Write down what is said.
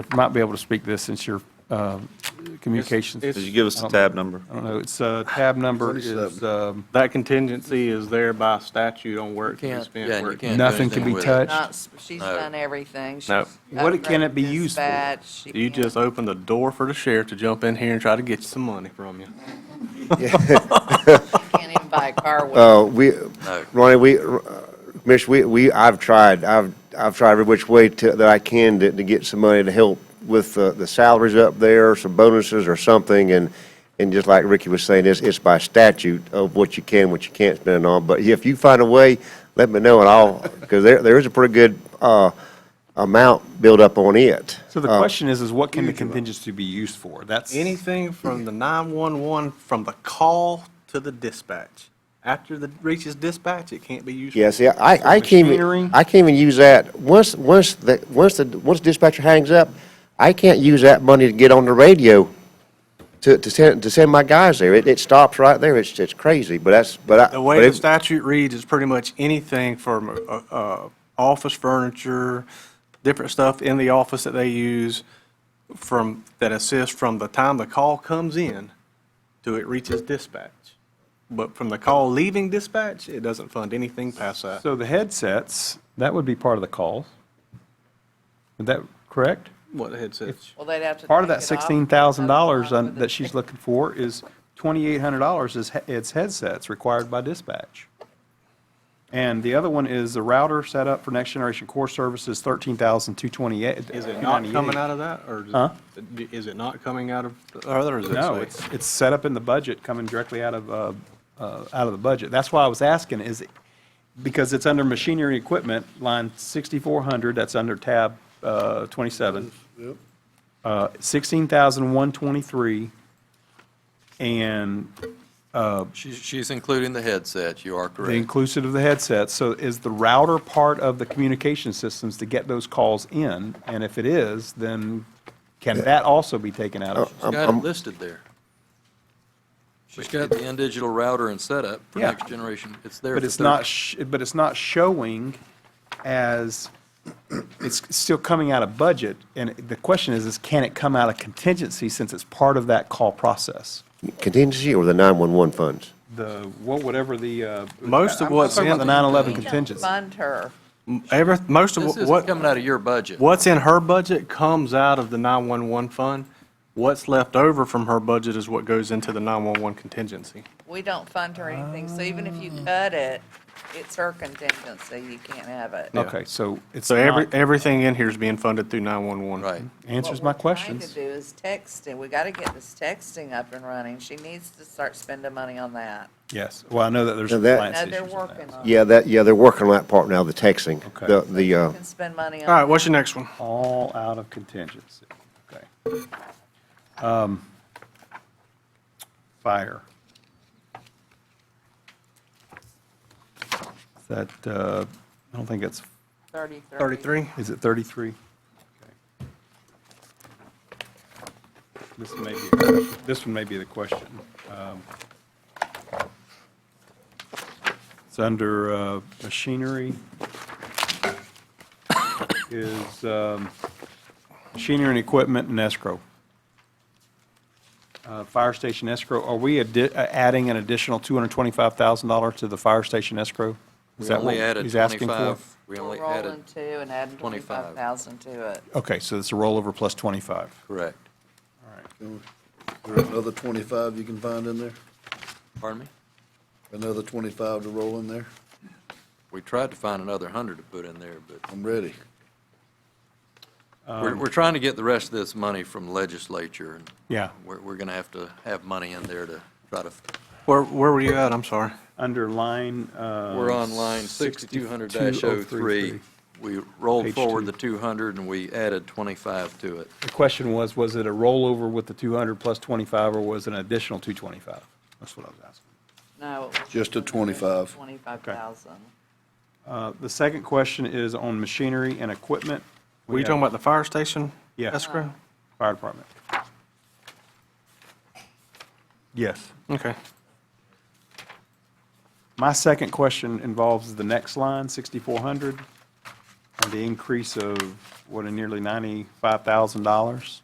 might be able to speak to this since your uh, communications. Did you give us the Um, tab number? I don't know, it's, uh, tab number is, 27. um, That contingency is there by statute on where it can be Can't- spent. yeah, you where it can't do nothing can be anything with it. touched. Not s- She's No. done everything. No. She's What it- can it be upgraded used for? dispatch. She You can- just open the door for the sheriff to jump in here and try to get you some money from you. Can't even buy a car with it. Uh, we, Ronnie, we, uh, Commissioner, we, we, I've tried, I've, I've tried every which way to, that I can to, to get some money to help with the, the salaries up there, some bonuses or something, and, and just like Ricky was saying, it's, it's by statute of what you can, what you can't spend on, but if you find a way, let me know and I'll, because there, there is a pretty good, uh, amount built up on it. So the question is, is what can the contingency be used for? That's. Anything from the 911, from the call to the dispatch. After the reaches dispatch, it can't be used. for- Yeah, see, I, I can't machinery? even, I can't even use that, once, once, the once the, once dispatcher hangs up, I can't use that money to get on the radio to, to send, to send my guys there, it, it stops right there, it's, it's crazy, but that's, but I. The but way the it- statute reads is pretty much anything from uh, uh, office furniture, different stuff in the office that they use from, that assists from the time the call comes in to it reaches dispatch. But from the call leaving dispatch, it doesn't fund anything past that. So the headsets, that would be part of the call. Is that correct? What the head says. Well, they'd have to. Part of take that it off. sixteen thousand dollars Another one with that the- she's looking for is twenty-eight hundred dollars is, he- it's headsets required by dispatch. And the other one is the router set up for next generation core services, thirteen thousand two twenty-eight. Is it not coming out of that, or is it- Huh? is it not coming out of the other, or is it? No, say- it's, it's set up in the budget, coming directly out of, uh, uh, out of the budget. That's why I was asking, is, it- because it's under machinery and equipment, line 6,400, that's under tab uh, 27. Uh, 16,123, and She's, she's including the headset, you are the correct. inclusive of the headset. So is the router part of the communication systems to get those calls in? And if it is, then can that also be taken out of? She's got it listed there. She's got the in-digital router and setup for Yeah. next generation, it's there. But for it's not, thirty. sh- but it's not showing as, it's still coming out of budget. And the question is, is can it come out of contingency since it's part of that call process? Contingency or the nine-one-one funds? The, what, whatever the. uh, Most of I'm not what's talking about in- The nine eleven We don't contingency. Fund her. Every, most of This what. isn't coming out of your budget. What's in her budget comes out of the 911 fund. What's left over from her budget is what goes into the 911 contingency. We don't fund her anything, so even if you cut it, it's her contingency. You can't have it. Yeah. Okay, so it's So every, not, everything in here is being funded through 911. Right. answers my questions. What we're trying to do is texting. We got to get this texting up and running. She needs to start spending money on that. Yes, well, I know that there's Now that- compliance No, they're issues on that. working on it. Yeah, that, yeah, they're working on that part now, the texting, Okay. the, the, uh, Can spend money on. All right, what's your next one? All out of contingency, okay. Um, Fire. Is That, uh, I don't think it's, Thirty, thirty. 33? is it 33? Okay. This may be, this one may be the question. Um, It's under uh, machinery. Is um, machinery and equipment and escrow. Uh, Fire station escrow, are we addi- uh, adding an additional $225,000 to the fire station escrow? Is We that what only added he's asking for? 25 We We're only rolling added, two and adding 25. twenty-five thousand to it. Okay, so it's a rollover plus 25. correct. All right. There's another twenty-five you can find in there, Pardon me? another twenty-five to roll in there. We tried to find another hundred to put in there, but I'm ready. Um, we're, we're trying to get the rest of this money from legislature. and Yeah. We're, we're gonna have to have money in there to try to, Where, where were you at? I'm sorry. Under line. uh, we're on line sixty-two hundred 6200-03. We rolled Page forward two. the two hundred and we added twenty-five to it. The question was, was it a rollover with the 200 plus 25, or was it an additional 225? That's what I was asking. No. Just a 25. Twenty-five thousand. Uh, The second question is on machinery and equipment. Were you have talking about the fire station? Yeah. Escrow? Fire department. Yes. Okay. My second question involves the next line, 6,400. and the increase of, what, a nearly $95,000?